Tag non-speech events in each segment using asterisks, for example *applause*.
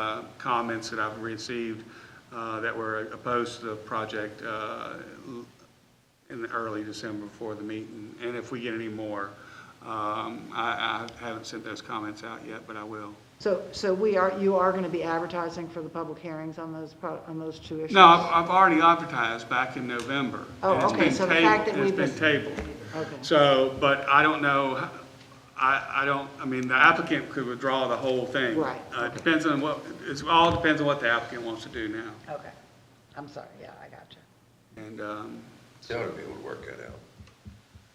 uh, comments that I've received uh, that were opposed to the project uh, in the early December before the meeting. And if we get any more, um, I I haven't sent those comments out yet, but I will. So, so we are, you are going to be advertising for the public hearings on those, pro- on those two issues? No, I've I've already advertised back in November. Oh, and it's okay, been so the tabled- fact that we've It's missed- been tabled. Okay. So, but I don't know, h- I, I don't, I mean, the applicant could withdraw the whole thing. Right, Uh, It depends on what, it's, all depends on what the applicant wants to do now. Okay, I'm sorry, yeah, I got you. And, um, They ought to be able to work that out.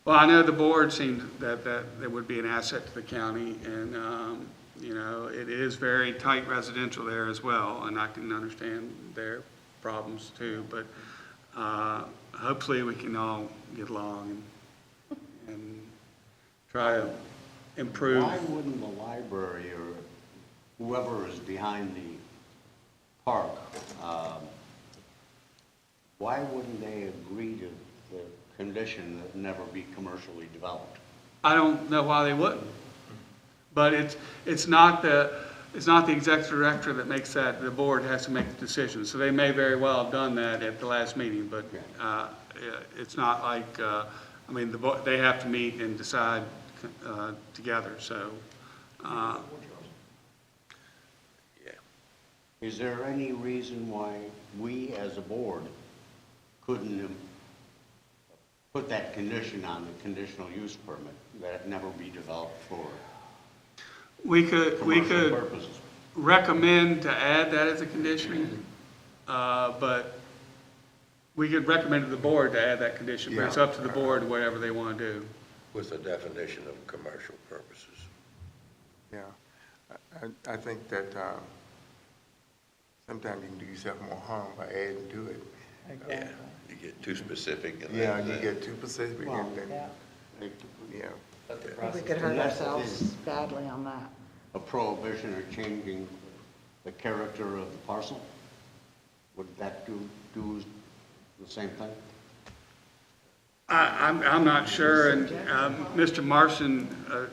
well, I know the board seemed that, that, that would be an asset to the county, and, um, you know, it is very tight residential there as well, and I can understand their problems too, but, uh, hopefully we can all get along and, and try to improve. Why wouldn't the library or whoever is behind the park, um, why wouldn't they agree to the condition that never be commercially developed? I don't know why they wouldn't. But it's, it's not the, it's not the executive director that makes that, the board has to make the decision. So they may very well have done that at the last meeting, but uh, it's not like, uh, I mean, the, bo- they have to meet and decide uh, together, so. uh, Is there any reason why we as a board couldn't um, put that condition on the conditional use permit, that it never be developed for We could, we commercial could purposes? recommend to add that as a condition, uh, but we could recommend to the board to add that condition, but it's up to the board, whatever they want to do. With the definition of commercial purposes. Yeah, I- I, I think that um, sometimes you can do yourself more harm by adding to it. Yeah, you get too specific and Yeah, then. you get too specific Well, and then, Yeah, yeah. We could hurt Unless it ourselves is badly on that. a prohibition or changing the character of the parcel? Would that do, do the same thing? I, I'm, I'm not sure, and, um, Mr. Marson, uh,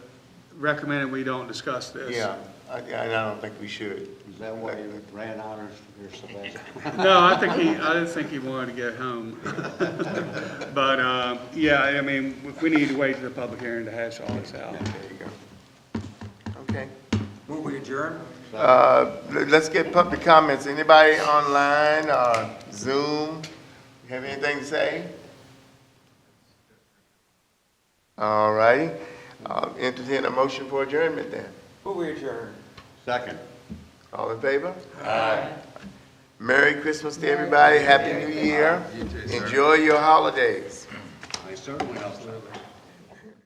recommended we don't discuss this. Yeah, I, I don't think we should. Is that why you ran out of your Sebastian? No, I think he, I didn't think he wanted to get home. *laughs* But, um, yeah, I mean, we- we need to wait to the public hearing to hash all this out. There you go. Okay. Will we adjourn? Uh, le- Let's get public comments. Anybody online or Zoom? Have anything to say? All righty. Uh, Entertain a motion for adjournment then. Will we adjourn? Second. All in favor? Aye. Merry Christmas to everybody, Happy New Year. Enjoy your holidays. I certainly hope so.